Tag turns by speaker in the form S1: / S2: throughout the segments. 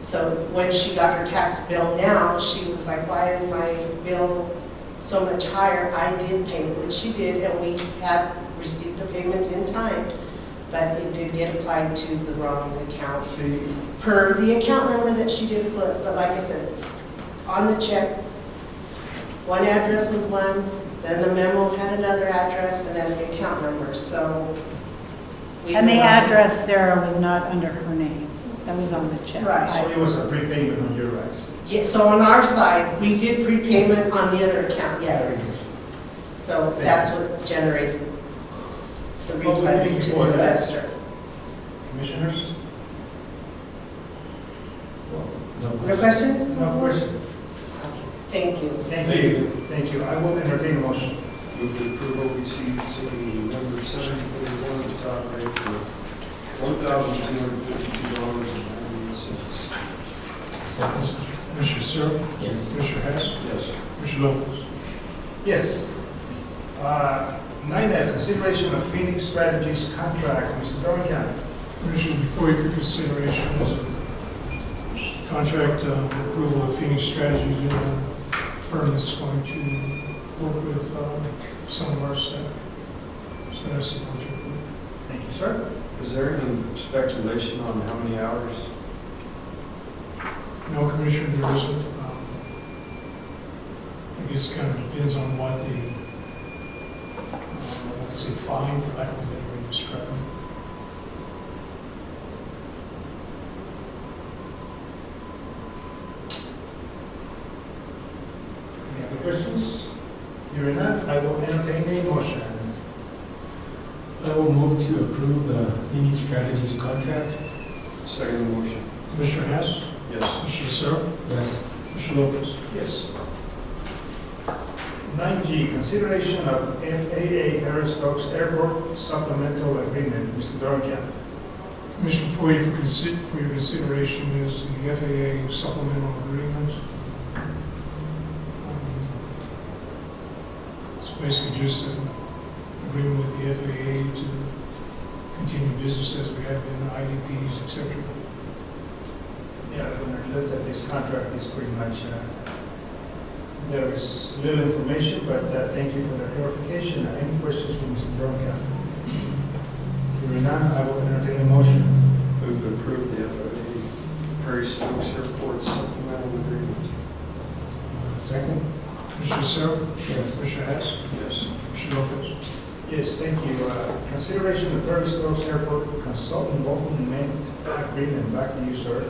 S1: So when she got her tax bill now, she was like, why is my bill so much higher? I did pay what she did, and we had received the payment in time, but it did get applied to the wrong account
S2: See,
S1: per the account number that she did put, but like I said, it's on the check. One address was one, then the memo had another address, and then the account number, so. we
S3: And the
S1: were not-
S3: address Sarah was not under her name. That was on the check.
S1: Right.
S2: so it was a prepayment on your rights.
S1: Yeah, so on our side, we did prepayment on the other account, yes. So that's what generated the
S2: Well, we thank
S1: refund
S2: you
S1: to
S2: for
S1: the
S2: that.
S1: investor.
S2: Commissioners?
S1: No questions?
S2: No question.
S1: Thank you.
S2: Thank you, thank you. I will entertain a motion.
S4: Move to approve OPCC number seven forty-one, the top rate for one thousand two hundred fifty-two dollars and ninety-eight cents.
S2: Commissioner Searle? Yes. Commissioner Hess?
S4: Yes.
S2: Commissioner Lopez? Yes. Uh, Nine F, consideration of Phoenix Strategies contract, Mr. Dorian.
S5: Commission, before you for consideration is a contract uh, approval of Phoenix Strategies, you know, firm that's going to work with uh, some of our staff. So that's a project.
S2: Thank you, sir.
S4: Is there any speculation on how many hours?
S5: No, Commissioner, there isn't. um, I guess it kind of depends on what the, uh, let's say, fine, for lack of a better way to describe it.
S2: Any other questions? Hearing none, I will entertain a motion.
S6: I will move to approve the Phoenix Strategies contract.
S4: Second motion.
S5: Commissioner Hess,
S4: Yes.
S5: Commissioner Searle,
S6: Yes.
S5: Commissioner Lopez.
S2: Yes. Nine G, consideration of FAA Terra-Stokes Airport supplemental agreement, Mr. Dorian.
S5: Commission, for you for consi- for your consideration is the FAA supplemental agreement. Um, It's basically just an agreement with the FAA to continue business as we have been, IDPs, et cetera.
S2: Yeah, when I looked at this contract, it's pretty much, uh, there is little information, but uh, thank you for the clarification. Uh, Any questions from Mr. Dorian? Hearing none, I will entertain a motion.
S4: Move to approve the FAA Prairie Stokes Airport supplemental agreement.
S6: Uh, Second?
S5: Commissioner Searle,
S6: Yes.
S5: Commissioner Hess,
S4: Yes.
S5: Commissioner Lopez.
S2: Yes, thank you. Uh, Consideration of Thirty Stokes Airport Consultant Local Maintenance Agreement, back to you, sir.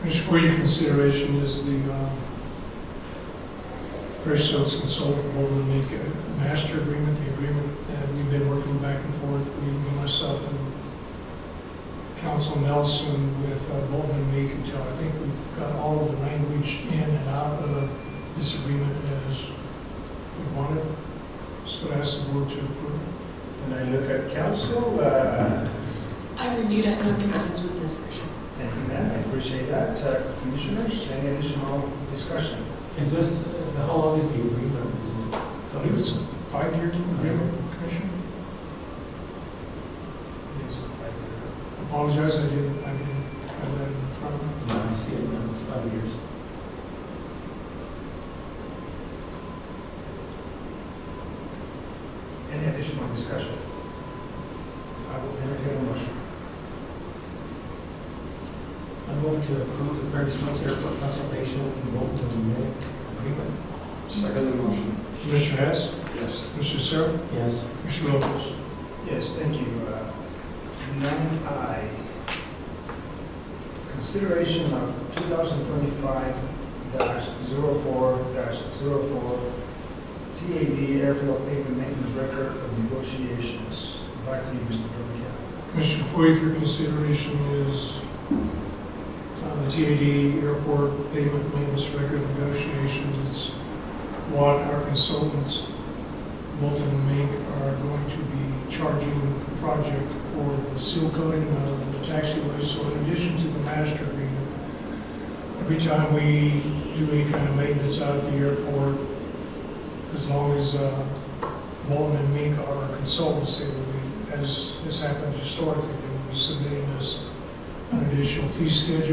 S5: Commission, for your consideration is the uh, Fairfield Consulting Board will make a master agreement, the agreement that we've been working back and forth, we, me, myself and Council Nelson with uh, Bolton and Meek until I think we've got all of the language in and out of this agreement as we want it. So I ask the board to approve.
S2: When I look at council, uh,
S7: I've reviewed it, no concerns with this version.
S2: thank you, ma'am, I appreciate that. Uh, Commissioners, any additional discussion?
S6: Is this, uh, how long is the agreement? Is it-
S5: I believe it's a five-year agreement, Commissioner? Apologize, I didn't, I didn't have that in front of me.
S6: Yeah, I see it now, it's five years.
S2: Any additional discussion? I will entertain a motion.
S6: I move to approve the Prairie Stokes Airport consultation and vote to amend agreement.
S4: Second motion.
S5: Commissioner Hess,
S4: Yes.
S5: Commissioner Searle,
S6: Yes.
S5: Commissioner Lopez.
S2: Yes, thank you. Uh, Nine I, consideration of 2025-04-04 TAD airfield pavement maintenance record of negotiations. Back to you, Mr. Burkett.
S5: Commissioner, for you for consideration is uh, the TAD Airport Payment Maintenance Record Negotiations. It's what our consultants, Bolton and Mink, are going to be charging the project for the seal coating of the taxiway. So in addition to the master agreement, every time we do any kind of maintenance out at the airport, as long as uh, Walton and Mink are our consultants, they will be, as has happened historically, they will be submitting us an additional fee schedule